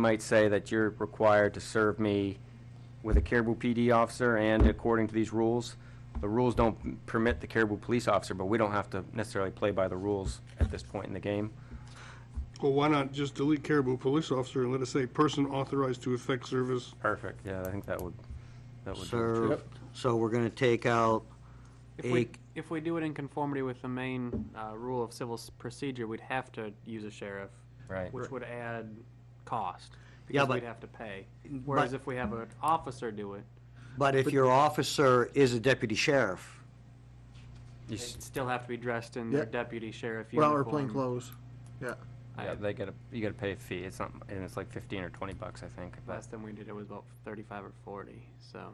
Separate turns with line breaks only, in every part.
might say that you're required to serve me with a Caribou PD officer, and according to these rules, the rules don't permit the Caribou police officer, but we don't have to necessarily play by the rules at this point in the game.
Well, why not just delete Caribou Police Officer and let it say person authorized to effect service?
Perfect, yeah, I think that would, that would. do it.
So, so we're gonna take out
If
a,
we, if we do it in conformity with the main uh, rule of civil s- procedure, we'd have to use a sheriff,
Right.
which would add cost
Yeah,
because
but-
we'd have to pay. Whereas if we have an officer do it,
but if your officer is a deputy sheriff,
You s-
they'd still have to be dressed in their
Yeah.
deputy sheriff
Well,
uniform.
or plain clothes, yeah.
I-
Yeah, they gotta, you gotta pay a fee, it's not, and it's like fifteen or twenty bucks, I think, but,
Last time we did it was about thirty-five or forty, so.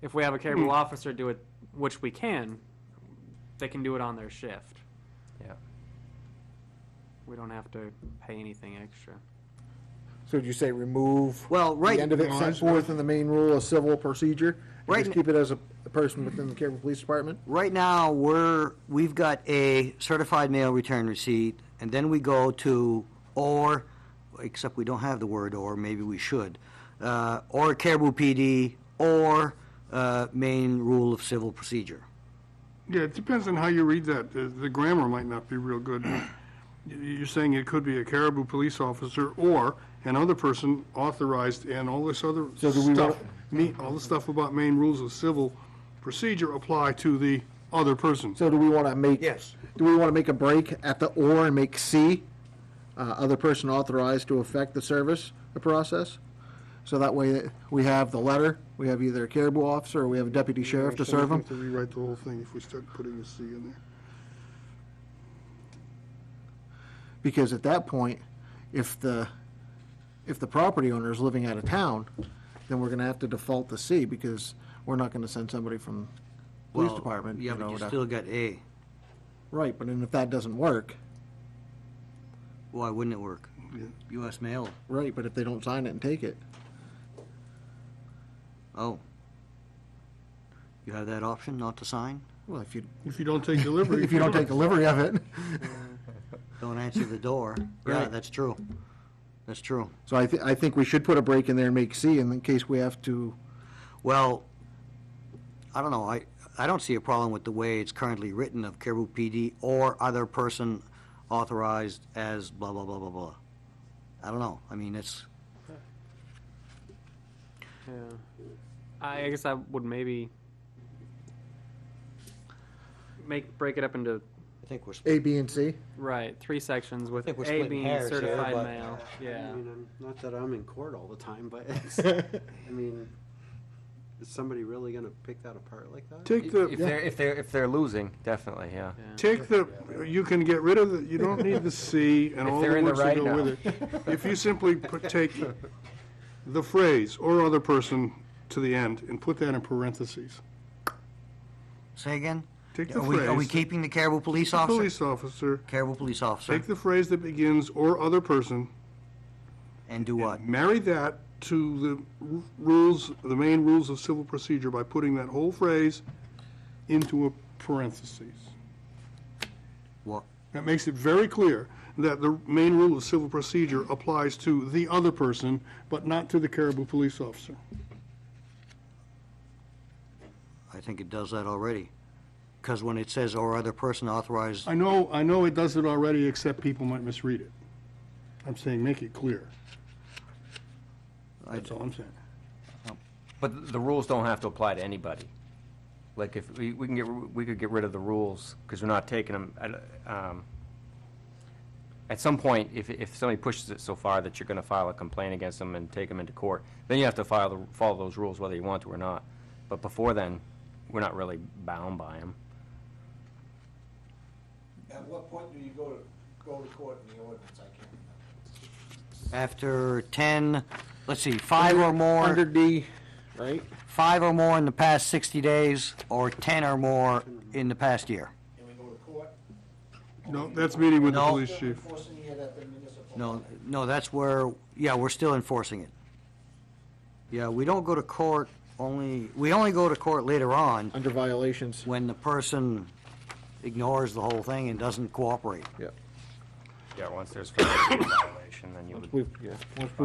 If we have a Caribou officer do it, which we can, they can do it on their shift.
yeah.
We don't have to pay anything extra.
So did you say remove?
Well, right-
The end of it
No,
set
it's-
forth in the main rule of civil procedure? and
Right
Just
n-
keep it as a a person within the Caribou Police Department?
right now, we're, we've got a certified mail return receipt, and then we go to or, except we don't have the word or, maybe we should, uh, or Caribou PD, or, uh, main rule of civil procedure.
Yeah, it depends on how you read that. The the grammar might not be real good. You- You're saying it could be a Caribou Police Officer or another person authorized and all this other
So do we
stuff.
want-
Me, all the stuff about main rules of civil procedure apply to the other person.
So do we want to make?
Yes.
Do we want to make a break at the or and make C, uh, other person authorized to affect the service, the process? So that way we have the letter, we have either a Caribou officer or we have a deputy sheriff to serve them.
We have To rewrite the whole thing if we start putting a C in there.
Because at that point, if the, if the property owner is living out of town, then we're gonna have to default to C because we're not gonna send somebody from police
Well,
department,
Yeah,
you
but
know.
you
to-
still got A.
Right, but then if that doesn't work,
Why wouldn't it work?
Yeah.
US mail,
right, but if they don't sign it and take it,
oh. You have that option not to sign?
well, if you,
If you don't take delivery.
if you don't take delivery of it.
Don't answer the door. Yeah,
Right.
that's true. That's true.
So I thi- I think we should put a break in there and make C in case we have to,
Well, I don't know, I, I don't see a problem with the way it's currently written of Caribou PD or other person authorized as blah, blah, blah, blah, blah. I don't know, I mean, it's,
Yeah. I I guess I would maybe make, break it up into,
I think we're,
A, B, and C.
right, three sections with
I think we're
A
splitting
being
hairs here,
certified
but-
mail, yeah.
I mean, I'm, not that I'm in court all the time, but it's, I mean, is somebody really gonna pick that apart like that?
Take
If
the.
they're, if they're, if they're losing, definitely, yeah.
Take the, you can get rid of the, you don't need the C and
If
all
they're
the
in the
words that
right
go with it. If you simply put, take the phrase "or other person" to the end and put that in parentheses.
say again?
Take the
Are we, are we
phrase,
keeping the Caribou police officer?
police officer,
Caribou police officer,
take the phrase that begins "or other person,"
and do what?
marry that to the r- rules, the main rules of civil procedure by putting that whole phrase into a parentheses.
What,
That makes it very clear that the main rule of civil procedure applies to the other person, but not to the Caribou police officer.
I think it does that already. Because when it says or other person authorized,
I know, I know it does it already, except people might misread it. I'm saying make it clear.
I,
That's all I'm saying.
But th- the rules don't have to apply to anybody. Like, if, we, we can get, r- we could get rid of the rules, because we're not taking them, um, at some point, if, if somebody pushes it so far that you're gonna file a complaint against them and take them into court, then you have to file, the follow those rules whether you want to or not. But before then, we're not really bound by them.
At what point do you go to, go to court in the ordinance? I can't remember.
after ten, let's see, five or more.
Under D, right?
five or more in the past 60 days, or 10 or more in the past year.
Can we go to court?
No, that's meeting with the
No.
police chief.
Enforcing it at the municipal.
No, no, that's where, yeah, we're still enforcing it. Yeah, we don't go to court only, we only go to court later on
Under violations.
when the person ignores the whole thing and doesn't cooperate.
Yeah, once there's a violation, then you would.
We've, yeah, once we